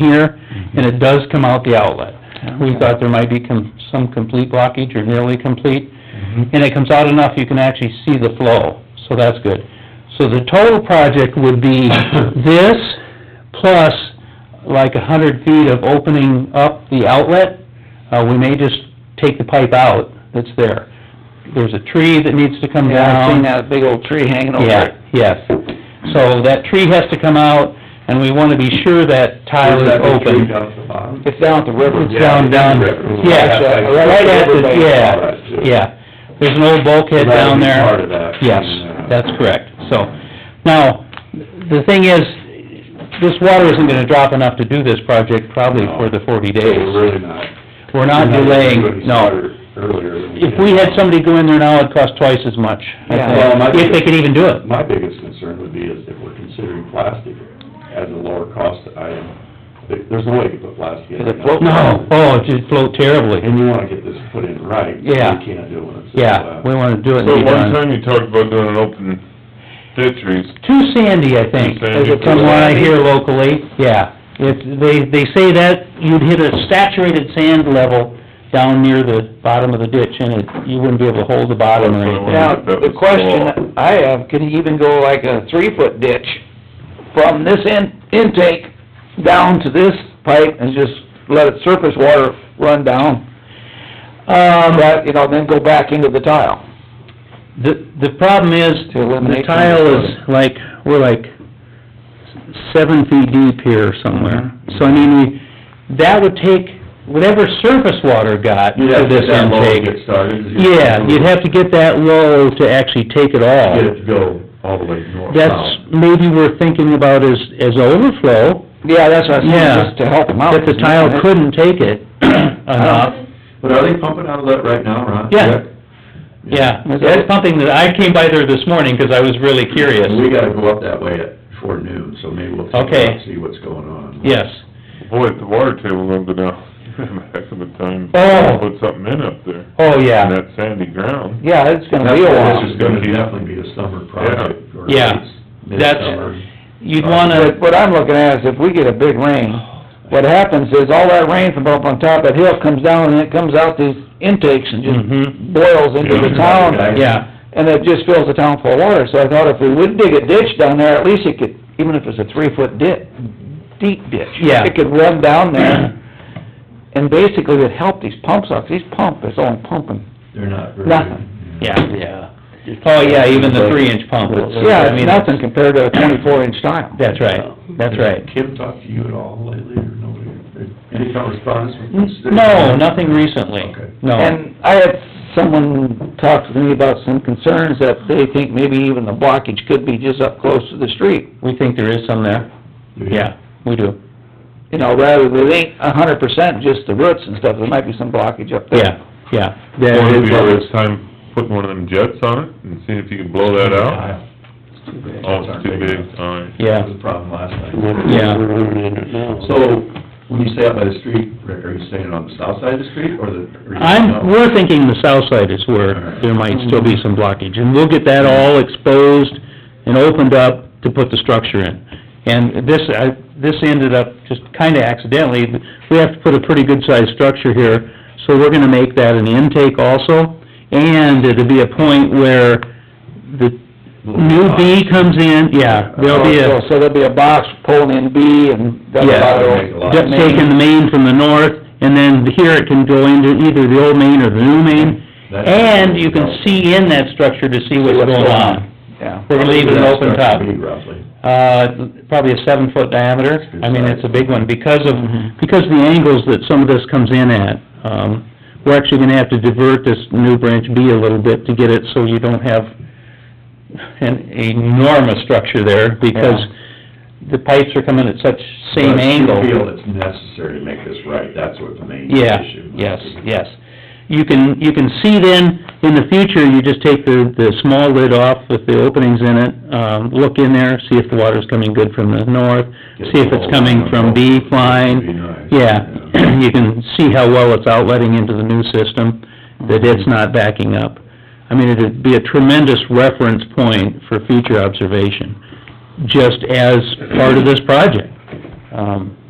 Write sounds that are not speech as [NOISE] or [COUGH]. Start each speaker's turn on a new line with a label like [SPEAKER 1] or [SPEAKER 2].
[SPEAKER 1] here, and it does come out the outlet. We
[SPEAKER 2] Okay.
[SPEAKER 1] thought there might be com- some complete blockage or nearly complete,
[SPEAKER 2] Mm-hmm.
[SPEAKER 1] and it comes out enough you can actually see the flow, so that's good. So the total project would
[SPEAKER 2] [LAUGHS]
[SPEAKER 1] be this, plus like a hundred feet of opening up the outlet. Uh, we may just take the pipe out that's there. There's a tree that needs to come down.
[SPEAKER 2] Yeah, I've seen that big old tree hanging over it.
[SPEAKER 1] Yeah, yes. So that tree has to come out, and we wanna be sure that tile is open.
[SPEAKER 2] It's down at the river.
[SPEAKER 1] It's down, down, yeah, right at the, yeah, yeah. There's an old bulkhead down there.
[SPEAKER 3] Part of that. uh,
[SPEAKER 1] Yes, that's correct, so, now, the thing is, this water isn't gonna drop enough to do this project probably for the forty
[SPEAKER 3] We're
[SPEAKER 1] days.
[SPEAKER 3] really not.
[SPEAKER 1] We're not delaying,
[SPEAKER 3] Everybody
[SPEAKER 1] no.
[SPEAKER 3] started Earlier than we
[SPEAKER 1] If
[SPEAKER 3] did.
[SPEAKER 1] we had somebody go in there now, it'd cost twice as much, I
[SPEAKER 2] Yeah.
[SPEAKER 1] think,
[SPEAKER 3] Well, my
[SPEAKER 1] if they
[SPEAKER 3] biggest-
[SPEAKER 1] could even do it.
[SPEAKER 3] Uh, My biggest concern would be is if we're considering plastic as a lower cost item, there- there's no way you can put plastic in.
[SPEAKER 2] Is it floating?
[SPEAKER 1] No, oh, it just float terribly.
[SPEAKER 3] And you wanna get this put in right.
[SPEAKER 1] Yeah.
[SPEAKER 3] You can't do it when it's. uh, in
[SPEAKER 1] Yeah,
[SPEAKER 3] glass.
[SPEAKER 1] we wanna do it and
[SPEAKER 4] So
[SPEAKER 1] be
[SPEAKER 4] one
[SPEAKER 1] done.
[SPEAKER 4] time you talked about doing an open ditch reuse.
[SPEAKER 1] Too sandy, I think,
[SPEAKER 4] Too sandy.
[SPEAKER 1] from what I hear locally, yeah. It's, they, they say that you'd hit a saturated sand level down near the bottom of the ditch and it, you wouldn't be able to hold the bottom or
[SPEAKER 4] That's what I
[SPEAKER 1] anything.
[SPEAKER 4] wondered.
[SPEAKER 2] Now,
[SPEAKER 4] That
[SPEAKER 2] the
[SPEAKER 4] was
[SPEAKER 2] question I have, could he even go like a three-foot ditch from this in, intake down to this pipe and just let it surface water run down? Um... But, you know, then go back into the tile.
[SPEAKER 1] The, the problem is,
[SPEAKER 2] To eliminate
[SPEAKER 1] the tile is like, we're like seven feet deep here somewhere. So I mean, we, that would take whatever surface water got
[SPEAKER 3] You'd
[SPEAKER 1] to
[SPEAKER 3] have to
[SPEAKER 1] this
[SPEAKER 3] get that low to
[SPEAKER 1] intake.
[SPEAKER 3] get started.
[SPEAKER 1] Yeah, you'd have to get that low to actually take it
[SPEAKER 3] Get
[SPEAKER 1] all.
[SPEAKER 3] it to go all the way north.
[SPEAKER 1] That's
[SPEAKER 3] south.
[SPEAKER 1] maybe we're thinking about as, as overflow,
[SPEAKER 2] Yeah, that's what I
[SPEAKER 1] Yeah.
[SPEAKER 2] said, just to help him out.
[SPEAKER 1] but the tile couldn't take it [CLEARS THROAT] enough.
[SPEAKER 3] But are they pumping out of that right now, Ron?
[SPEAKER 1] Yeah. Yeah, that's something that, I came by there this morning, 'cause I was really curious.
[SPEAKER 3] We gotta go up that way at, before noon, so maybe we'll take
[SPEAKER 1] Okay.
[SPEAKER 3] a look, see what's going on.
[SPEAKER 1] Yes.
[SPEAKER 4] Boy, if the water table went [LAUGHS] down, you'd have a heck of a time.
[SPEAKER 1] Oh.
[SPEAKER 4] Put something in up there,
[SPEAKER 1] Oh,
[SPEAKER 4] in
[SPEAKER 1] yeah,
[SPEAKER 4] that sandy ground.
[SPEAKER 2] Yeah, it's gonna
[SPEAKER 3] That's
[SPEAKER 2] be a
[SPEAKER 3] why
[SPEAKER 2] while.
[SPEAKER 3] This is gonna definitely be a summer project. or at
[SPEAKER 1] Yeah.
[SPEAKER 3] least
[SPEAKER 1] That's-
[SPEAKER 3] midsummer.
[SPEAKER 1] you'd
[SPEAKER 2] But
[SPEAKER 1] wanna,
[SPEAKER 2] what I'm looking at is if we get a big rain, what happens is all that rain from up on top of that hill comes down and it comes out these intakes and
[SPEAKER 1] Mhm.
[SPEAKER 2] just boils into the
[SPEAKER 4] Yeah.
[SPEAKER 2] town.
[SPEAKER 1] yeah,
[SPEAKER 2] And it just fills the town full of water, so I thought if we would dig a ditch down there, at least it could, even if it's a three-foot dip, deep ditch.
[SPEAKER 1] Yeah.
[SPEAKER 2] It could run
[SPEAKER 1] [CLEARS THROAT]
[SPEAKER 2] down there and basically it'd help these pumps out, 'cause these pump is only pumping.
[SPEAKER 3] They're not very.
[SPEAKER 2] Nothing.
[SPEAKER 1] yeah, yeah. Oh, yeah, even the three-inch pump, it's,
[SPEAKER 2] Yeah,
[SPEAKER 1] I
[SPEAKER 2] it's
[SPEAKER 1] mean,
[SPEAKER 2] nothing compared to a twenty-four inch tile.
[SPEAKER 1] that's right, that's right.
[SPEAKER 3] Kim talked to you at all lately, or nobody, any kind of response from the city?
[SPEAKER 1] No, nothing recently,
[SPEAKER 3] Okay.
[SPEAKER 1] no.
[SPEAKER 2] And I had someone talk to me about some concerns that they think maybe even the blockage could be just up close to the street.
[SPEAKER 1] We think there is some there, yeah, we do,
[SPEAKER 2] You know, rather than, it ain't a hundred percent just the roots and stuff, there might be some blockage up there.
[SPEAKER 1] yeah, yeah.
[SPEAKER 4] Or it'd be a waste of time putting one of them jets on it and seeing if you can blow that out. Oh, it's too big, alright.
[SPEAKER 1] Yeah.
[SPEAKER 3] That was the problem last night.
[SPEAKER 1] Yeah.
[SPEAKER 3] So, when you say out by the street, Rick, are you saying on the south side of the street, or the? or you
[SPEAKER 1] I'm,
[SPEAKER 3] know?
[SPEAKER 1] we're thinking the south side is where there might still be some blockage, and we'll get that all exposed and opened up to put the structure in. And this, I, this ended up just kinda accidentally, we have to put a pretty good-sized structure here, so we're gonna make that an intake also, and it'll be a point where the new bee comes in, yeah, there'll be a...
[SPEAKER 2] So there'll be a box pulling in B and double
[SPEAKER 1] Yeah.
[SPEAKER 3] Make a lot
[SPEAKER 2] lateral.
[SPEAKER 3] of
[SPEAKER 1] Just taking the main from the north, and then here it can go into either the old main or the new main,
[SPEAKER 3] That's-
[SPEAKER 1] and you can see in that structure to see what's going on.
[SPEAKER 2] Yeah.
[SPEAKER 1] We're leaving it open
[SPEAKER 3] That's
[SPEAKER 1] top,
[SPEAKER 3] gonna be Roughly.
[SPEAKER 1] uh, probably a seven-foot diameter, I mean, it's Mm-hmm. a big one, because of, because of the angles that some of this comes in at. Um, we're actually gonna have to divert this new branch B a little bit to get it so you don't have an enormous structure there, because the pipes are coming at such same
[SPEAKER 3] But
[SPEAKER 1] angle.
[SPEAKER 3] You feel it's necessary to make this right, that's what the main
[SPEAKER 1] Yeah,
[SPEAKER 3] issue. might
[SPEAKER 1] yes,
[SPEAKER 3] be.
[SPEAKER 1] yes. You can, you can see then, in the future, you just take the, the small lid off with the openings in it, um, look in there, see if the water's coming good from the north, see if it's coming from B
[SPEAKER 3] Be
[SPEAKER 1] line.
[SPEAKER 3] nice.
[SPEAKER 1] Yeah, [CLEARS THROAT] you can see how well it's outletting into the new system, that
[SPEAKER 3] Mm-hmm.
[SPEAKER 1] it's not backing up. I mean, it'd be a tremendous reference point for future observation, just as part of this project. Um,